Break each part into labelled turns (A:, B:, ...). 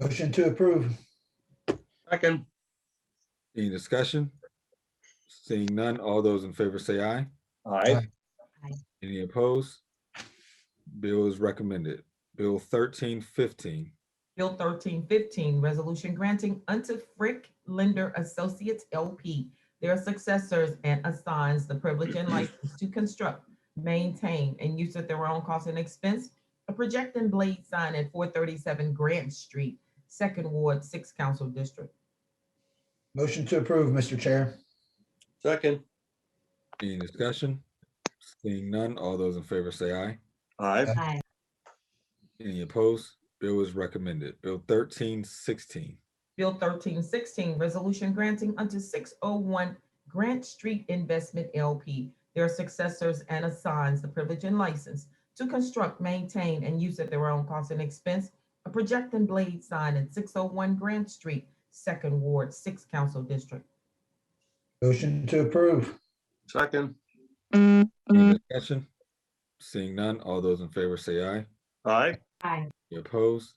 A: Motion to approve.
B: Second.
C: Any discussion? Seeing none, all those in favor say aye.
B: Aye.
C: Any opposed? Bill is recommended. Bill thirteen fifteen,
D: Bill thirteen fifteen, resolution granting unto Frick Lender Associates LP their successors and assigns the privilege and license to construct, maintain, and use at their own cost and expense a projecting blade sign at four thirty-seven Grant Street, Second Ward, Sixth Council District.
A: Motion to approve, Mr. Chair.
B: Second.
C: any discussion? Seeing none, all those in favor say aye.
B: Aye.
E: Aye.
C: Any opposed? Bill is recommended. Bill thirteen sixteen,
D: Bill thirteen sixteen, resolution granting unto six oh one Grant Street Investment LP, their successors and assigns the privilege and license to construct, maintain, and use at their own cost and expense a projecting blade sign in six oh one Grant Street, Second Ward, Sixth Council District.
A: Motion to approve.
B: Second.
C: any discussion? Seeing none, all those in favor say aye.
B: Aye.
E: Aye.
C: Any opposed?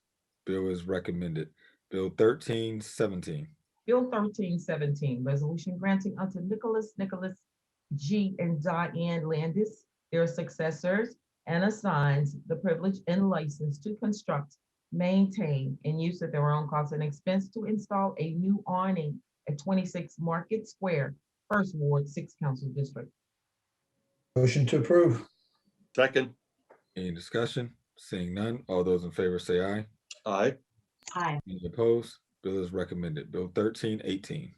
C: Bill is recommended. Bill thirteen seventeen,
D: Bill thirteen seventeen, resolution granting unto Nicholas Nicholas G. and Diane Landis, their successors, and assigns the privilege and license to construct, maintain, and use at their own cost and expense to install a new awning at twenty-six Market Square, First Ward, Sixth Council District.
A: Motion to approve.
B: Second.
C: any discussion? Seeing none, all those in favor say aye.
B: Aye.
E: Aye.
C: Any opposed? Bill is recommended. Bill thirteen eighteen,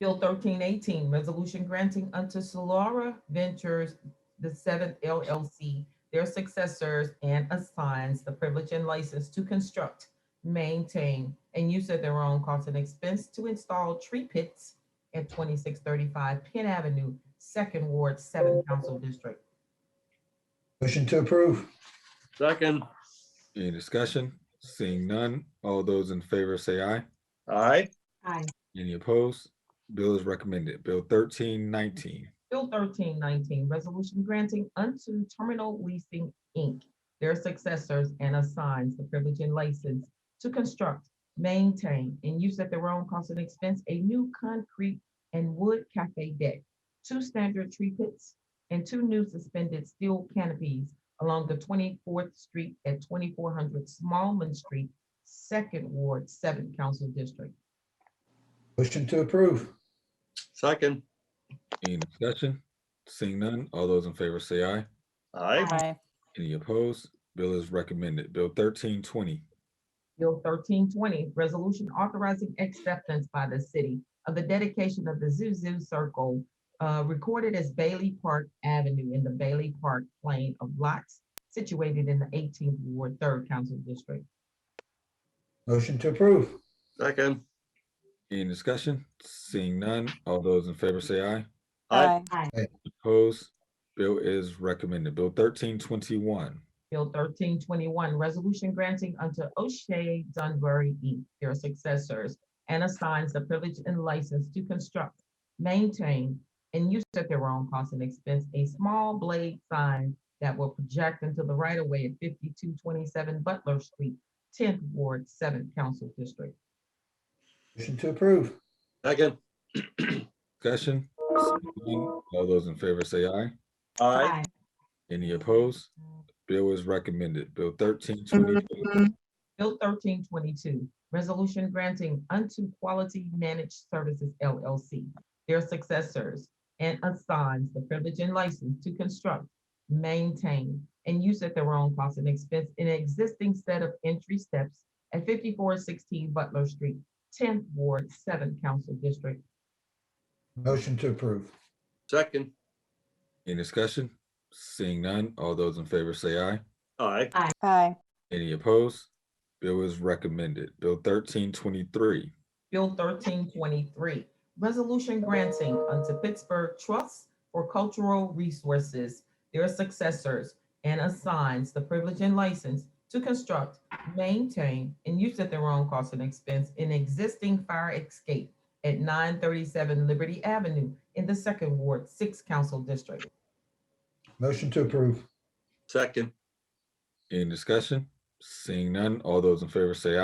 D: Bill thirteen eighteen, resolution granting unto Solara Ventures, the seventh LLC, their successors and assigns the privilege and license to construct, maintain, and use at their own cost and expense to install tree pits at twenty-six thirty-five Penn Avenue, Second Ward, Seventh Council District.
A: Motion to approve.
B: Second.
C: any discussion? Seeing none, all those in favor say aye.
B: Aye.
E: Aye.
C: Any opposed? Bill is recommended. Bill thirteen nineteen,
D: Bill thirteen nineteen, resolution granting unto Terminal Leasing, Inc., their successors and assigns the privilege and license to construct, maintain, and use at their own cost and expense a new concrete and wood cafe deck, two standard tree pits, and two new suspended steel canopies along the twenty-fourth street at twenty-four hundred Smallman Street, Second Ward, Seventh Council District.
A: Motion to approve.
B: Second.
C: any discussion? Seeing none, all those in favor say aye.
B: Aye.
C: Any opposed? Bill is recommended. Bill thirteen twenty,
D: Bill thirteen twenty, resolution authorizing acceptance by the city of the dedication of the Zuzu Circle uh, recorded as Bailey Park Avenue in the Bailey Park Plain of Lots situated in the eighteenth Ward, Third Council District.
A: Motion to approve.
B: Second.
C: any discussion? Seeing none, all those in favor say aye.
B: Aye.
C: Opposed? Bill is recommended. Bill thirteen twenty-one,
D: Bill thirteen twenty-one, resolution granting unto O'Shea Dunbury Inc. their successors and assigns the privilege and license to construct, maintain, and use at their own cost and expense a small blade sign that will project into the right of way at fifty-two twenty-seven Butler Street, tenth Ward, seventh Council District.
A: Motion to approve.
B: Second.
C: discussion? Seeing none, All those in favor say aye.
B: Aye.
C: Any opposed? Bill is recommended. Bill thirteen twenty-two,
D: Bill thirteen twenty-two, resolution granting unto Quality Managed Services LLC, their successors, and assigns the privilege and license to construct, maintain, and use at their own cost and expense an existing set of entry steps at fifty-four sixteen Butler Street, tenth Ward, seventh Council District.
A: Motion to approve.
B: Second.
C: any discussion? Seeing none, all those in favor say aye.
B: Aye.
E: Aye.
C: Any opposed? Bill is recommended. Bill thirteen twenty-three,
D: Bill thirteen twenty-three, resolution granting unto Pittsburgh Trust for Cultural Resources their successors and assigns the privilege and license to construct, maintain, and use at their own cost and expense an existing fire escape at nine thirty-seven Liberty Avenue in the Second Ward, Sixth Council District.
A: Motion to approve.
B: Second.
C: any discussion? Seeing none, all those in favor say aye.